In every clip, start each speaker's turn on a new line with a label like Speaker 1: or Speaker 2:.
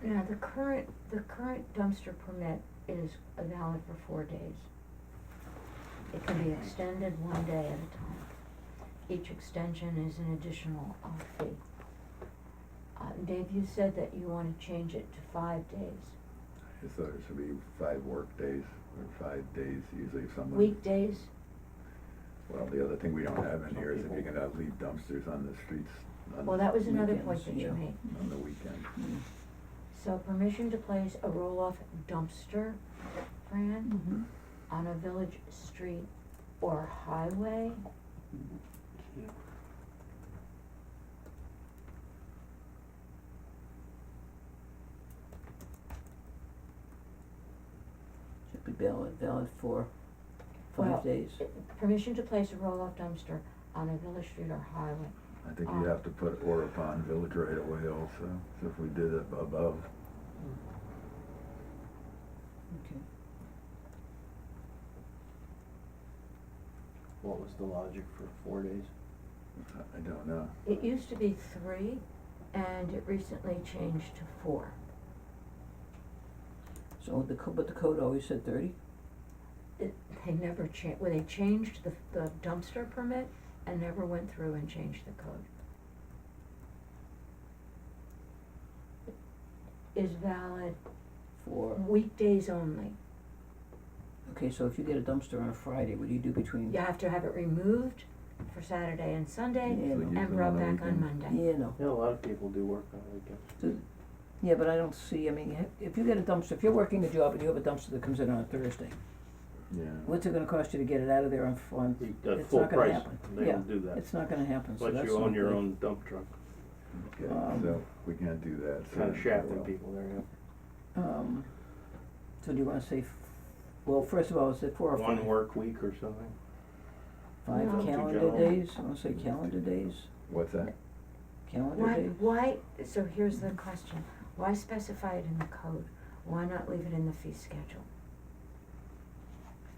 Speaker 1: Now, the current, the current dumpster permit is valid for four days. It can be extended one day at a time. Each extension is an additional uh, fee. Uh, Dave, you said that you wanna change it to five days.
Speaker 2: I just thought it should be five work days or five days, usually if someone.
Speaker 1: Weekdays,
Speaker 2: Well, the other thing we don't have in
Speaker 3: Some
Speaker 2: here is if you're
Speaker 3: people-
Speaker 2: gonna leave dumpsters on the streets on.
Speaker 1: well, that was Mm. another point
Speaker 3: Weekends,
Speaker 1: that you
Speaker 3: yeah.
Speaker 1: made.
Speaker 2: On the weekend.
Speaker 1: So permission to place a roll-off dumpster,
Speaker 3: Mm-hmm.
Speaker 1: Fran, on a village street or highway?
Speaker 3: Yeah.
Speaker 4: Should be valid, valid for
Speaker 1: Well,
Speaker 4: five days.
Speaker 1: Permission to place a roll-off dumpster on a village street or highway. Um,
Speaker 2: I think you have to put or upon village right away also, so if we did it above,
Speaker 4: Okay.
Speaker 3: What was the logic for four days?
Speaker 2: I- I don't know.
Speaker 1: It used to be three, and it recently changed to four.
Speaker 4: So the co- but the code always said thirty?
Speaker 1: It, they never cha- well, they changed the, the dumpster permit and never went through and changed the code. Is valid
Speaker 4: For,
Speaker 1: weekdays only.
Speaker 4: okay, so if you get a dumpster on a Friday, what do you do between?
Speaker 1: You have to have it removed for Saturday and Sunday
Speaker 4: Yeah,
Speaker 2: So
Speaker 4: no.
Speaker 2: you-
Speaker 1: and brought back on Monday.
Speaker 4: Yeah, no.
Speaker 3: Yeah, a lot of people do work on weekends.
Speaker 4: So- Yeah, but I don't see, I mean, ha- if you get a dumpster, if you're working a job and you have a dumpster that comes in on a Thursday,
Speaker 2: Yeah,
Speaker 4: what's it gonna cost you to get it out of there on, f- on,
Speaker 3: You-
Speaker 4: it's not gonna happen.
Speaker 3: At full price, they
Speaker 4: Yeah,
Speaker 3: will do that.
Speaker 4: It's not gonna happen, so that's
Speaker 3: But you own
Speaker 4: not
Speaker 3: your
Speaker 4: good.
Speaker 3: own dump truck,
Speaker 2: okay,
Speaker 4: Um,
Speaker 2: so we can't do that, so.
Speaker 3: kinda shafting
Speaker 2: well,
Speaker 3: people there, yeah.
Speaker 4: Um, so do you wanna say, f- well, first of all, is it four or five?
Speaker 3: One work week or something,
Speaker 4: Five
Speaker 1: No. Too
Speaker 4: calendar
Speaker 3: general.
Speaker 4: days, I wanna say calendar days,
Speaker 2: What's that?
Speaker 4: calendar
Speaker 1: Why,
Speaker 4: days?
Speaker 1: why, so here's the question, why specify it in the code? Why not leave it in the fee schedule?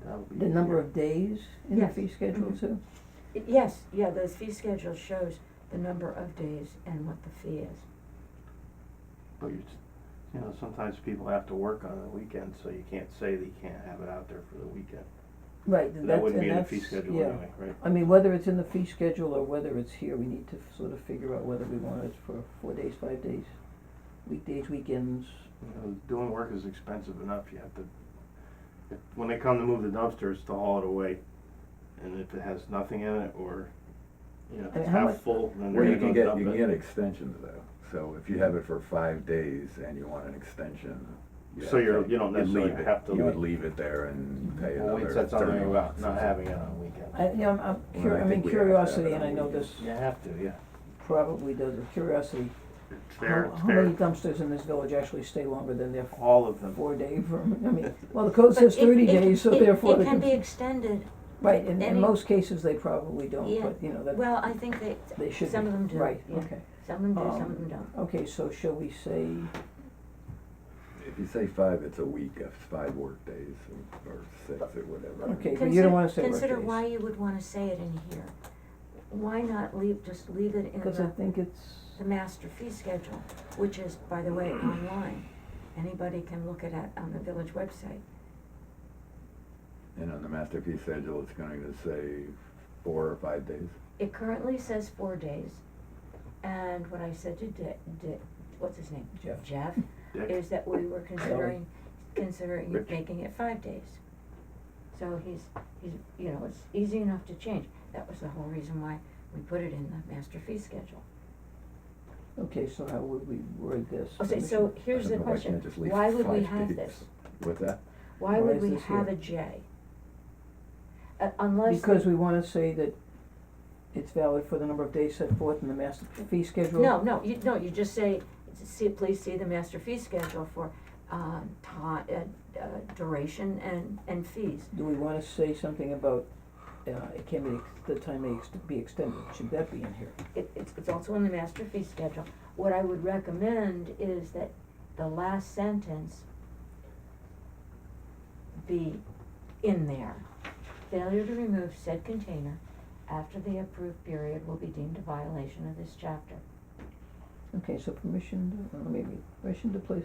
Speaker 3: that would be.
Speaker 4: The number
Speaker 3: easier.
Speaker 4: of days in the
Speaker 1: Yes.
Speaker 4: fee schedule
Speaker 1: Mhm.
Speaker 4: too?
Speaker 1: I- Yes, yeah, the fee schedule shows the number of days and what the fee is.
Speaker 3: But you, s- you know, sometimes people have to work on the weekend, so you can't say that you can't have it out there for the weekend.
Speaker 4: Right, and
Speaker 3: That
Speaker 4: that's,
Speaker 3: wouldn't be
Speaker 4: and
Speaker 3: in
Speaker 4: that's,
Speaker 3: the fee schedule
Speaker 4: yeah.
Speaker 3: anyway, right?
Speaker 4: I mean, whether it's in the fee schedule or whether it's here, we need to sort of figure out whether we want it for four days, five days, weekdays, weekends.
Speaker 3: You know, doing work is expensive enough, you have to, if, when they come to move the dumpsters, to haul it away. And if it has nothing in it, or, you know, if
Speaker 4: And
Speaker 3: it's
Speaker 4: how
Speaker 3: half
Speaker 4: much-
Speaker 3: full,
Speaker 2: Well,
Speaker 3: then they're
Speaker 2: you can
Speaker 3: gonna
Speaker 2: get,
Speaker 3: dump it.
Speaker 2: you can get extensions though, so if you have it for five days and you want an extension, you
Speaker 3: So
Speaker 2: have
Speaker 3: you're-
Speaker 2: to-
Speaker 3: you don't necessarily
Speaker 2: leave it.
Speaker 3: have to
Speaker 2: You would
Speaker 3: leave.
Speaker 2: leave it there and pay
Speaker 3: Well,
Speaker 2: another
Speaker 3: wait,
Speaker 2: thirty.
Speaker 3: that's something about
Speaker 2: bucks or
Speaker 3: not
Speaker 2: something.
Speaker 3: having it on weekends.
Speaker 4: I, you know, I'm, I'm
Speaker 2: Well, I
Speaker 4: curi- I
Speaker 2: think
Speaker 4: mean,
Speaker 2: we have to have
Speaker 4: curiosity,
Speaker 2: it
Speaker 4: and
Speaker 2: on
Speaker 4: I know
Speaker 2: weekends.
Speaker 4: this
Speaker 3: You have to, yeah.
Speaker 4: probably does, but curiosity,
Speaker 3: It's
Speaker 4: how,
Speaker 3: there, it's
Speaker 4: how many
Speaker 3: there.
Speaker 4: dumpsters in this village actually stay longer than their
Speaker 3: All of them.
Speaker 4: four day permit? I mean, well, the code
Speaker 1: But
Speaker 4: says
Speaker 1: it-
Speaker 4: thirty
Speaker 1: it-
Speaker 4: days, so
Speaker 1: it-
Speaker 4: therefore
Speaker 1: It
Speaker 4: they
Speaker 1: can
Speaker 4: can,
Speaker 1: be extended,
Speaker 4: right, in, in
Speaker 1: any-
Speaker 4: most cases, they probably don't,
Speaker 1: Yeah.
Speaker 4: but you know, that,
Speaker 1: well, I think they,
Speaker 4: they should be,
Speaker 1: some
Speaker 4: right, okay.
Speaker 1: of them do, yeah. some of them do, some
Speaker 4: Um,
Speaker 1: of them don't.
Speaker 4: Okay, so shall we say,
Speaker 2: If you say five, it's a week, if it's five work days or- or six or whatever.
Speaker 4: Okay. but you don't wanna
Speaker 1: Consider-
Speaker 4: say work
Speaker 1: Consider
Speaker 4: days.
Speaker 1: why you would wanna say it in here. Why not leave, just leave it in
Speaker 4: because I
Speaker 1: the,
Speaker 4: think it's.
Speaker 1: the master fee schedule, which is, by the way, online. Anybody can look it at on the village website.
Speaker 2: And on the masterpiece schedule, it's going to say four or five days.
Speaker 1: It currently says four days, and what I said to Dick, Dick, what's his name?
Speaker 4: Jeff.
Speaker 1: Jeff,
Speaker 3: Dick.
Speaker 1: is that we were considering, considering
Speaker 3: Rich.
Speaker 1: making it five days. So he's, he's, you know, it's easy enough to change, that was the whole reason why we put it in the master fee schedule.
Speaker 4: Okay, so how would we word this?
Speaker 1: Okay, so here's
Speaker 2: I
Speaker 1: the
Speaker 2: don't know why I
Speaker 1: question,
Speaker 2: can't just leave
Speaker 1: why would we
Speaker 2: five
Speaker 1: have
Speaker 2: days.
Speaker 1: this?
Speaker 2: What's that?
Speaker 1: Why
Speaker 4: Why
Speaker 1: would
Speaker 4: is
Speaker 1: we
Speaker 4: this
Speaker 1: have a
Speaker 4: here?
Speaker 1: J? Uh, unless.
Speaker 4: Because we wanna say that it's valid for the number of days set forth in the master fee schedule?
Speaker 1: No, no, you, no, you just say, see, please see the master fee schedule for, uh, ti- uh, uh, duration and, and fees.
Speaker 4: Do we wanna say something about, uh, it can be, ex- the time may ex- be extended, should that be in here?
Speaker 1: It, it's, it's also in the master fee schedule. What I would recommend is that the last sentence be in there. Failure to remove said container after the approved period will be deemed a violation of this chapter.
Speaker 4: Okay, so permission, to- uh, maybe, permission to place